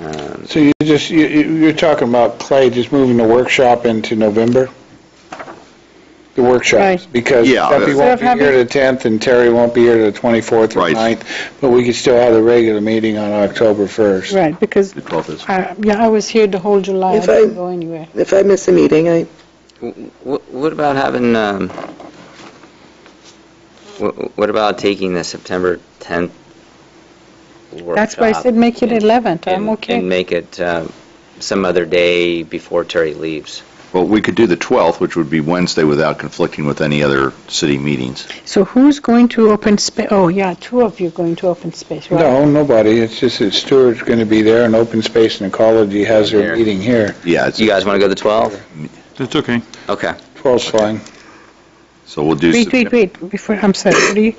Um, So you just, you, you- you're talking about Clay just moving the workshop into November? The workshops? Right. Because Yeah, Duffy that's- Instead won't of be here having- the 10th and Terry won't be here the 24th or Right. 9th, but we could still have the regular meeting on October 1st. Right, because, The 12th is. I- yeah, I was here the whole July, I If didn't I- go anywhere. If I miss a meeting, I, Wh- What about having, um, wh- what about taking the September 10th workshop? That's why I said make it and- 11th, I'm and- And okay. make it um, some other day before Terry leaves. Well, we could do the 12th, which would be Wednesday without conflicting with any other city meetings. So who's going to open space, oh, yeah, two of you going to open space, right? No, nobody, it's just that Stewart's going to be there and Open Space and Ecology has Here. their meeting here. Yeah, it's- You guys want to go the 12th? That's okay. Okay, 12's fine. so we'll do. Wait, wait, wait, before, I'm sorry, what do you-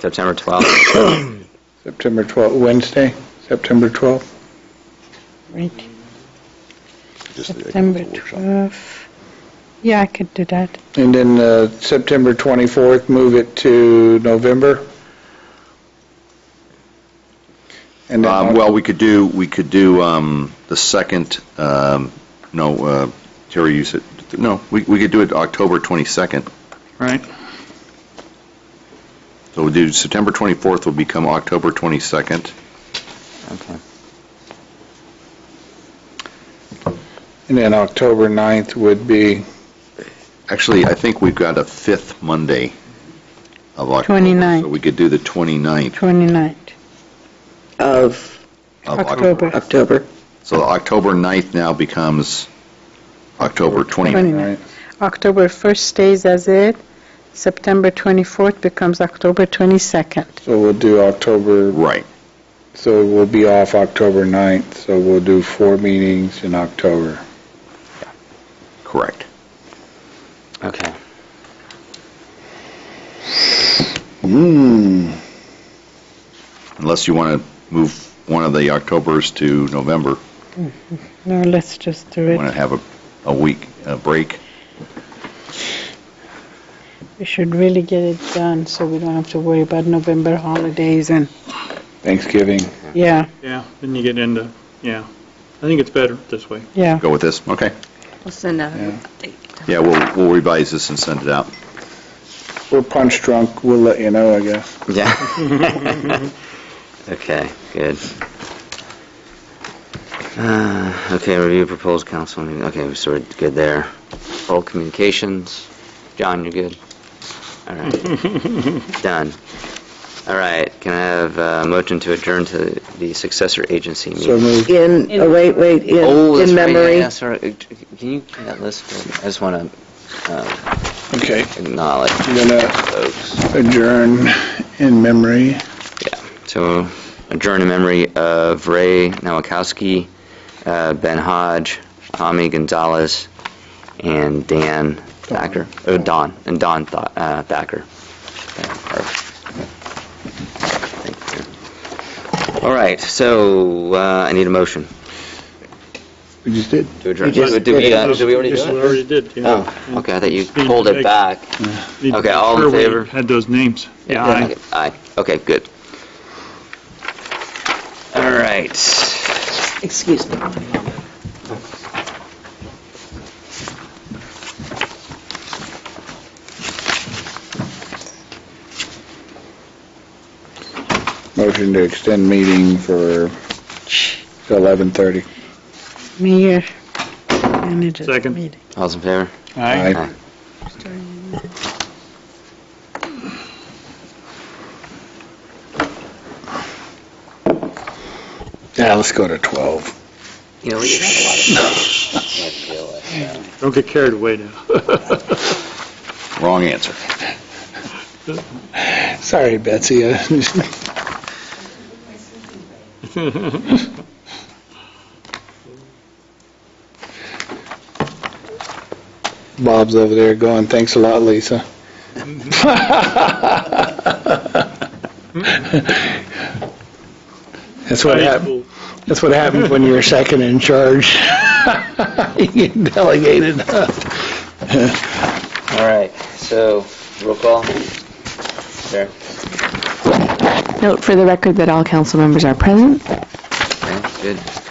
September 12th. September 12th, Wednesday, September 12th? right, just the- September 12th. Yeah, I could do that. And then uh, September 24th, move it to November? And then Um, Well, we could do, we could do um, the second, um, no, uh, Terry, you said, no, we we could do it October 22nd. Right. So we'll do September 24th will become October 22nd. Okay. And then October 9th would be, Actually, I think we've got a fifth Monday of October. 29th. So we could do the 29th 29th, of of October. October. October. So October 9th now becomes October 29th. 29th. October 1st stays as it, September 24th becomes October 22nd. so we'll do October, Right. so we'll be off October 9th, so we'll do four meetings in October. Correct. Okay. Hmm. Unless you want to move one of the Octobers to November, No, let's just do want it. to have a, a week uh break. We should really get it done, so we don't have to worry about November holidays and, Thanksgiving. yeah, Yeah, then you get into, yeah. I think it's better this way. yeah. Go with this? Okay. We'll send out Yeah. an update. Yeah, we'll, we'll revise this and send it out. We're punch drunk, we'll let you know, I guess. Yeah. Okay, good. Uh, Okay, review proposed council meeting, okay, so we're good there. All communications, John, you're good? All right, done. All right, can I have a motion to adjourn to the successor agency So meeting? moved. In, oh, wait, wait, Oh, in, that's in right, memory. yeah, sorry, uh, can you, get that list, I just want to Okay, acknowledge I'm gonna folks. adjourn in memory. Yeah, so adjourn in memory of Ray Nowakowski, uh, Ben Hodge, Tommy Gonzalez, and Dan Thacker, oh, Don, and Don Tha- uh, Thacker. All right, so uh, I need a motion We just did. to adjourn. You just Did we, uh, did it. did we already Yes, do we it? already did, yeah. Oh, okay, I thought you pulled it back. Need to Okay, all in make sure we favor? Had those names. Yeah, aye. Okay, Aye, okay, good. All right. Excuse me. Motion to extend meeting for till 11:30. Mayor, manager. Second. meeting. All's in favor? Aye. Aye. Yeah, let's go to 12. You know, we have a lot of stuff to deal with. Don't get carried away now. Wrong answer. Sorry, Betsy. Bob's over there going, thanks a lot, Lisa. That's what happened, Aye. that's what happens when you're second in charge. You get delegated. All right, so, roll call. There. Note for the record that all council members are present. Okay, good.